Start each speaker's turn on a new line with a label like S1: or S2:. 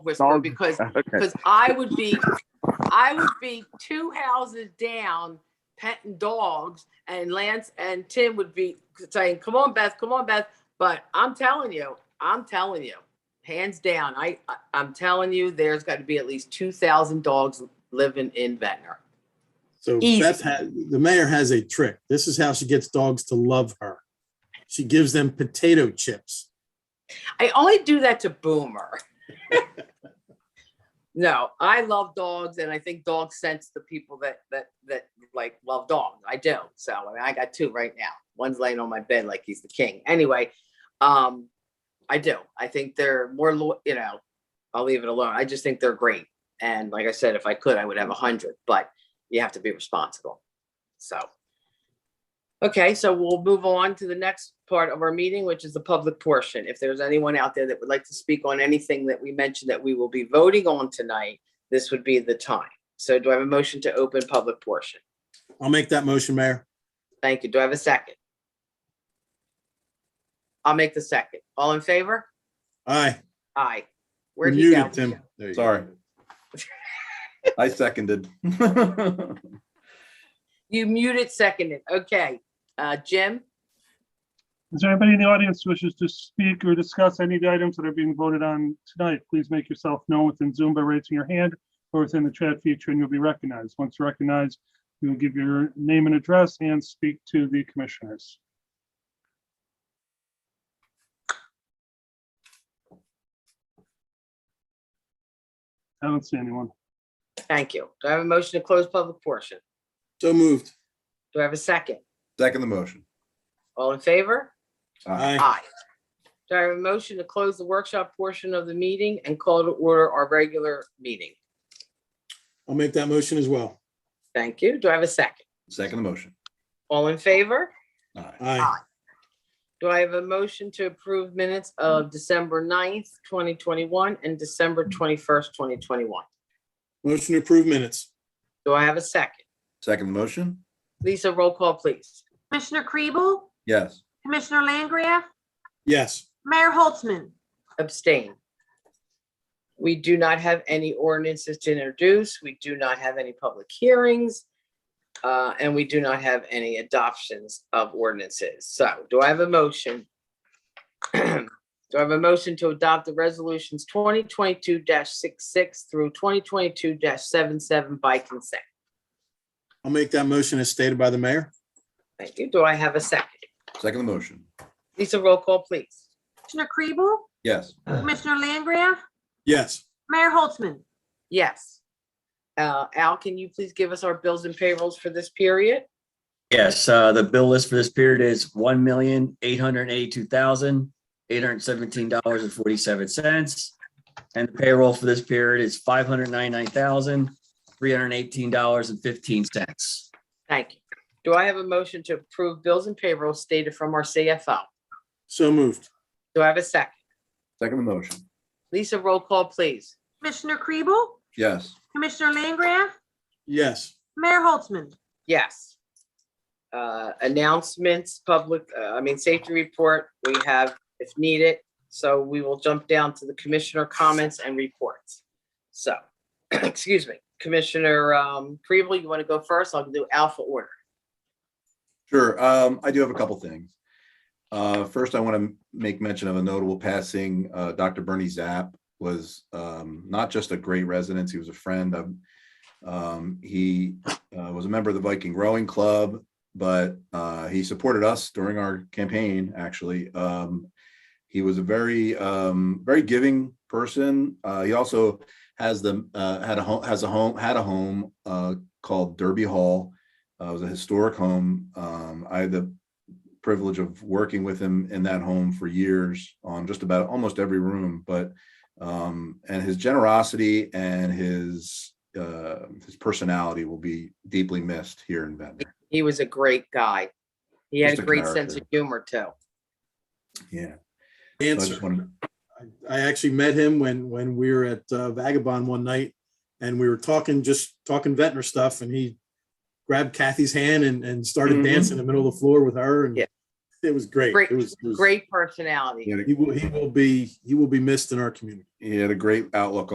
S1: whisperer
S2: Dog-
S1: because,
S2: Okay,
S1: because I would be, I would be two houses down petting dogs and Lance and Tim would be saying, come on, Beth, come on, Beth. But I'm telling you, I'm telling you, hands down, I, I- I'm telling you, there's got to be at least 2,000 dogs living in Ventnor.
S3: So
S1: Easy.
S3: Beth, ha- the mayor has a trick. This is how she gets dogs to love her. She gives them potato chips.
S1: I only do that to Boomer. no, I love dogs, and I think dogs sense the people that that that like love dogs. I do. So I mean, I got two right now. One's laying on my bed like he's the king. Anyway, um, I do. I think they're more, lo- you know, I'll leave it alone. I just think they're great. And like I said, if I could, I would have a hundred, but you have to be responsible. So. Okay, so we'll move on to the next part of our meeting, which is the public portion. If there's anyone out there that would like to speak on anything that we mentioned that we will be voting on tonight, this would be the time. So do I have a motion to open public portion?
S3: I'll make that motion, Mayor.
S1: Thank you. Do I have a second? I'll make the second. All in favor?
S3: Aye.
S1: Aye. Where'd
S3: You're
S1: he go?
S3: muted, Tim. There you go.
S4: Sorry. I seconded.
S1: You muted seconded. Okay. Uh, Jim?
S5: Is there anybody in the audience who wishes to speak or discuss any of the items that are being voted on tonight? Please make yourself known within Zoom by raising your hand or within the chat feature and you'll be recognized. Once recognized, you will give your name and address and speak to the commissioners. I don't see anyone.
S1: Thank you. Do I have a motion to close public portion?
S3: So moved.
S1: Do I have a second?
S4: Second the motion.
S1: All in favor?
S4: Aye.
S3: Aye.
S1: Aye. Do I have a motion to close the workshop portion of the meeting and call to order our regular meeting?
S3: I'll make that motion as well.
S1: Thank you. Do I have a second?
S4: Second the motion.
S1: All in favor?
S4: Aye.
S3: Aye.
S1: Do I have a motion to approve minutes of December 9th, twenty twenty-one and December twenty-first, twenty twenty-one?
S3: Motion to approve minutes.
S1: Do I have a second?
S4: Second the motion?
S1: Lisa, roll call, please.
S6: Commissioner Kriebel?
S4: Yes.
S6: Commissioner Langgraf?
S3: Yes.
S6: Mayor Holtzman?
S1: Abstain. We do not have any ordinances to introduce. We do not have any public hearings. uh, And we do not have any adoptions of ordinances. So do I have a motion? Do I have a motion to adopt the resolutions twenty twenty-two 66 through twenty twenty-two 77 by consent?
S3: I'll make that motion as stated by the mayor.
S1: Thank you. Do I have a second?
S4: Second the motion.
S1: Lisa, roll call, please.
S6: Commissioner Kriebel?
S4: Yes.
S6: Commissioner Langgraf?
S3: Yes.
S6: Mayor Holtzman?
S1: Yes. Uh, Al, can you please give us our bills and payrolls for this period?
S7: Yes, uh, the bill list for this period is one million, eight hundred and eighty-two thousand, eight hundred and seventeen dollars and forty-seven cents. And the payroll for this period is five hundred and ninety-nine thousand, three hundred and eighteen dollars and fifteen cents.
S1: Thank you. Do I have a motion to approve bills and payroll stated from our CFO?
S3: So moved.
S1: Do I have a second?
S4: Second the motion.
S1: Lisa, roll call, please.
S6: Commissioner Kriebel?
S4: Yes.
S6: Commissioner Langgraf?
S3: Yes.
S6: Mayor Holtzman?
S1: Yes. Uh, Announcements, public, uh, I mean, safety report, we have if needed. So we will jump down to the commissioner comments and reports. So, excuse me, Commissioner um, Kribel, you want to go first? I'll do alpha order.
S4: Sure. Um, I do have a couple things. Uh, first, I want to make mention of a notable passing. Uh, Dr. Bernie Zapp was um, not just a great resident, he was a friend. Um, um, he uh, was a member of the Viking Rowing Club, but uh, he supported us during our campaign, actually. Um, he was a very, um, very giving person. Uh, he also has the, uh, had a home, has a home, had a home uh, called Derby Hall. Uh, it was a historic home. Um, I had the privilege of working with him in that home for years on just about almost every room. But um, and his generosity and his uh, his personality will be deeply missed here in Ventnor.
S1: He was a great guy. He had
S4: Just
S1: a
S4: a
S1: great sense of
S4: character.
S1: humor, too.
S4: Yeah. So I
S3: Answer.
S4: just wanted,
S3: I- I actually met him when, when we were at uh, Vagabond one night and we were talking, just talking Ventnor stuff and he grabbed Kathy's hand and, and started
S4: Mhm.
S3: dancing in the middle of the floor with her and
S1: Mm-hmm. Yeah.
S3: it was great.
S1: Great-
S3: It was, it was-
S1: great personality.
S4: he, had a,
S3: He will, he will be, he will be missed in our community.
S4: he had a great outlook